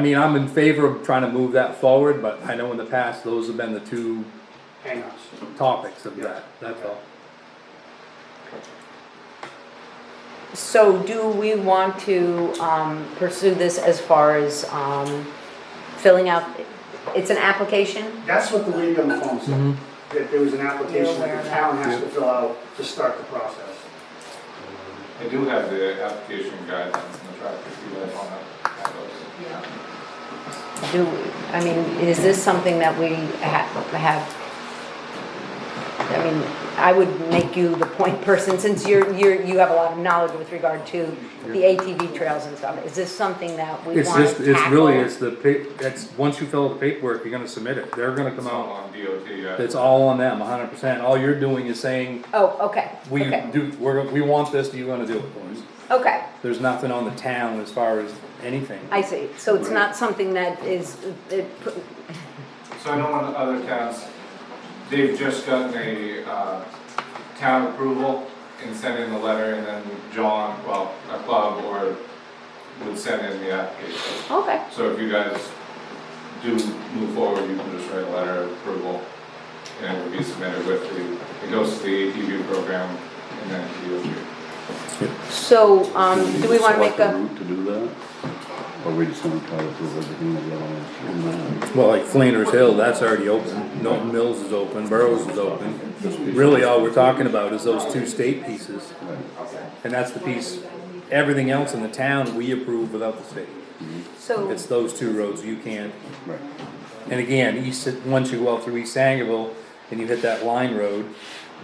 I mean, I'm in favor of trying to move that forward, but I know in the past, those have been the two hang-ups. topics of that, that's all. So do we want to um, pursue this as far as um, filling out, it's an application? That's what the league on the phone said, that there was an application that the town has to fill out to start the process. I do have the application guidelines in the draft if you guys want to have those. Do, I mean, is this something that we ha- have? I mean, I would make you the point person since you're, you're, you have a lot of knowledge with regard to the ATV trails and stuff. Is this something that we It's want just, to it's really, tackle? it's the pa, that's, once you fill out the paperwork, you're gonna submit it, they're gonna It's come all out, on DOT, yeah. it's all on them, hundred percent, all you're doing is saying, Oh, okay, we okay, do, we're, we want this, do you wanna do it for us? okay. There's nothing on the town as far as anything. I see. So it's not something that is, it, So I know in other towns, they've just gotten a uh, town approval and sent in the letter, and then John, well, a club or would send in the application. okay. So if you guys do move forward, you can just write a letter of approval, and it would be submitted with the, it goes to the ATV program, and then DOT. So, um, do we wanna make Select a, route to do that? Or we just gonna try to do everything that we have Well, like Flanders Hill, that's already open, Norton Mills is open, Burrows is open. Really, all we're talking about is those two state pieces, on this? and that's the piece, everything else in the town, we approve without the state. so, It's those two roads you can, Right, right. and again, east, once you go out through East Sangerville and you hit that line road,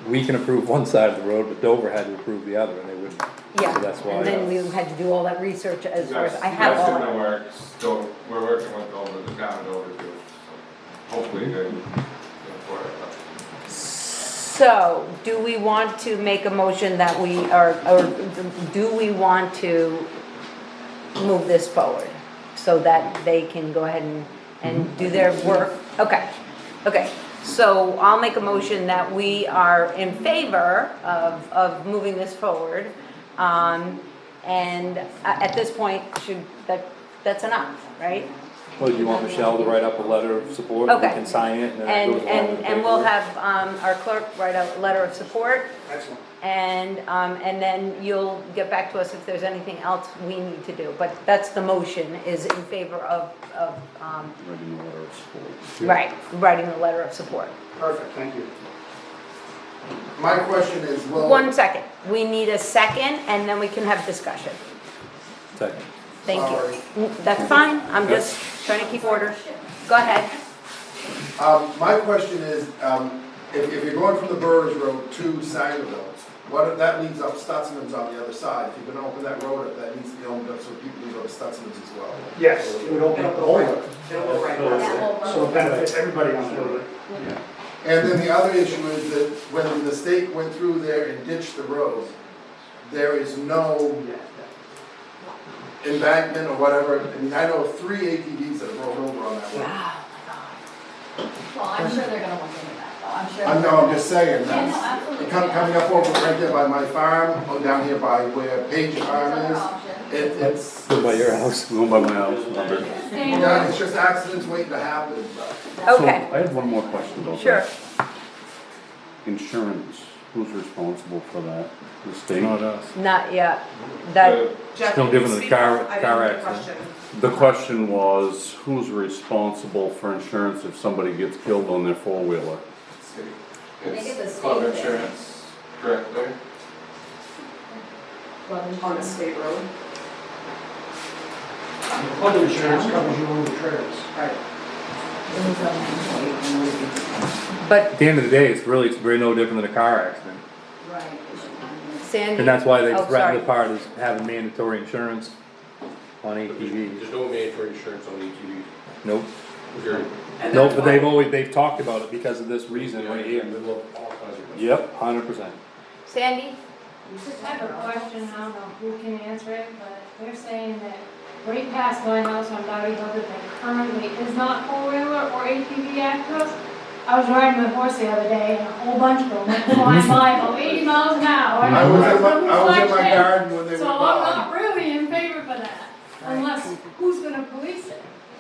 we can approve one side of the road, but Dover had to approve the other, and they wouldn't. So yeah, that's why, and then we uh, had to do all that research as far as, I That's- have that's all in the that. works, so we're working with Dover, the town of Dover too, so hopefully they, they'll for it. So, do we want to make a motion that we are, or do we want to move this forward? So that they can go ahead and, and do their work? Okay, okay. So I'll make a motion that we are in favor of, of moving this forward. Um, and a- at this point, should, that, that's enough, right? Well, you want Michelle to write up a letter of support, we Okay. can sign it, and then it And, goes along with and, the and we'll paperwork. have, um, our clerk write a letter of support Excellent. And, um, and then you'll get back to us if there's anything else we need to do, but that's the motion, is in favor of, of, um, Writing a letter of support. right, writing the letter of support. Perfect, thank you. My question is, will, One second, we need a second, and then we can have discussion. Second. Thank you. Mm, That's fine, I'm just trying to keep order. Go ahead. um, my question is, um, if, if you're going from the Burridge Road to Sangerville, what, if that leads up, Stutzman's on the other side, if you're gonna open that road up, that needs to be opened up so people can go to Stutzman's as well. Yes, it would open up the whole road, so it So benefits everybody on the road. And then the other issue is that when the state went through there and ditched the road, there is no embankment or whatever, I mean, I know of three ATVs that rolled over on that road. Wow. Well, I'm sure they're gonna look into that, though, I'm sure. I know, I'm just saying, Yeah, no, that's, absolutely. Come- Coming up over right there by my farm, or down here by where Page Farm is, it, it's, Go by your house. Going by my house, Robert. yeah, it's just accidents waiting to happen, but. Okay, So, I have one more question about that. sure. Insurance, who's responsible for that? The state? us. Not yet. That, The- Jeff, No can you different than speak car- up? I didn't car hear the accident. question. The question was, who's responsible for insurance if somebody gets killed on their four-wheeler? City. think it's a It's state club thing. insurance director. On a state road? Flood insurance covers you on the trails. but At the end of the day, it's really, it's very no different than a car accident. Sandy. And that's why they Oh, sorry. threatened the part is having mandatory insurance on ATVs. There's no mandatory insurance on E ATVs. Nope, Period. nope, but they've always, they've talked about it because of this reason Yeah, right in the here. middle of all kinds of- Yep, hundred percent. Sandy? Just have a question, I don't know who can answer it, but they're saying that right past my house on Bobby Hill that there currently is not four-wheeler or ATV access. I was riding my horse the other day and a whole bunch of them went flying by about eighty miles an hour. and I was in my, I was in like my this. garden when they were So I'm gone. not really in favor for that, unless, who's gonna police